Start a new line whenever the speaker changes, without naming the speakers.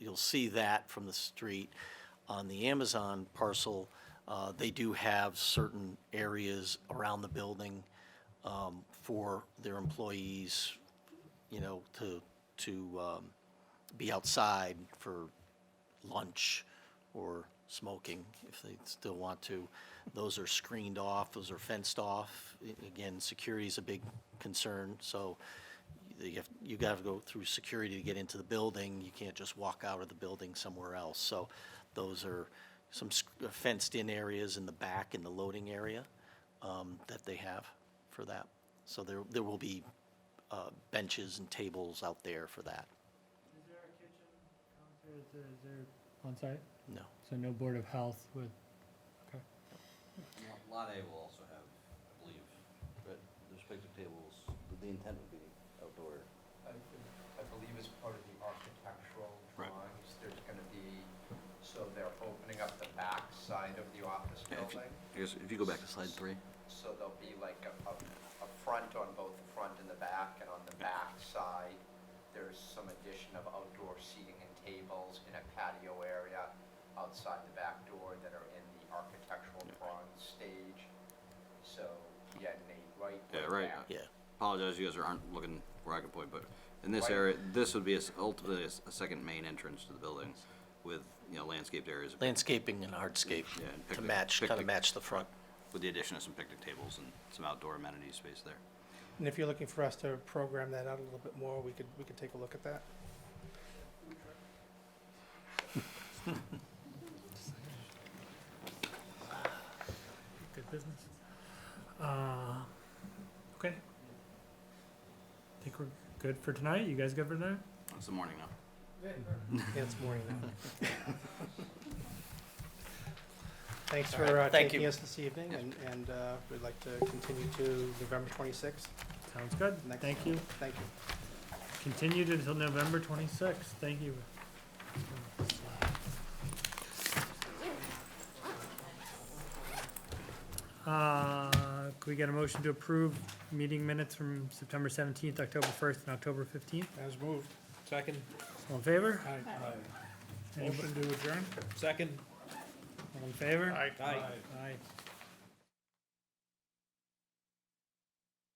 you'll see that from the street. On the Amazon parcel, uh, they do have certain areas around the building um, for their employees, you know, to, to um, be outside for lunch or smoking if they still want to. Those are screened off, those are fenced off. A- Again, security is a big concern, so you have, you gotta go through security to get into the building. You can't just walk out of the building somewhere else. So those are some sc- uh, fenced-in areas in the back in the loading area um, that they have for that. So there, there will be uh, benches and tables out there for that.
Is there a kitchen? Is there, is there? On site,
No.
so no Board of Health with, okay.
Lot A will also have, I believe, but the respective tables, the intent would be outdoor.
I I believe as part of the architectural drawings, there's gonna be, so they're opening up the back side of the office building.
I guess if you go back to slide three.
So there'll be like a, a, a front on both the front and the back, and on the back side, there's some addition of outdoor seating and tables in a patio area outside the back door that are in the architectural drawing stage. So, yeah, Nate, right?
Yeah,
we're
right.
back.
Yeah.
Apologize, you guys aren't looking where I could point, but in this
Right.
area, this would be a s- ultimately a s- a second main entrance to the building with, you know, landscaped areas
Landscaping and hardscape
Yeah, and
to
picnic-
match, kind of
picnic.
match the front.
with the addition of some picnic tables and some outdoor amenity space there.
And if you're looking for us to program that out a little bit more, we could, we could take a look at that.
Good business. Uh, okay. Think we're good for tonight? You guys good for tonight?
It's the morning now.
Yeah, it's morning now. Thanks for uh,
right, thank
taking
you.
us this evening,
Yes.
and, and uh, we'd like to continue to November 26th.
Sounds good.
Next
Thank you.
Thank you.
Continued until November twenty-sixth. Thank you. Uh, could we get a motion to approve meeting minutes from September seventeenth, October first, and October fifteenth?
As moved. Second.
All in favor? Anybody-
to adjourn? Second.
All in favor?
Aye.
Aye.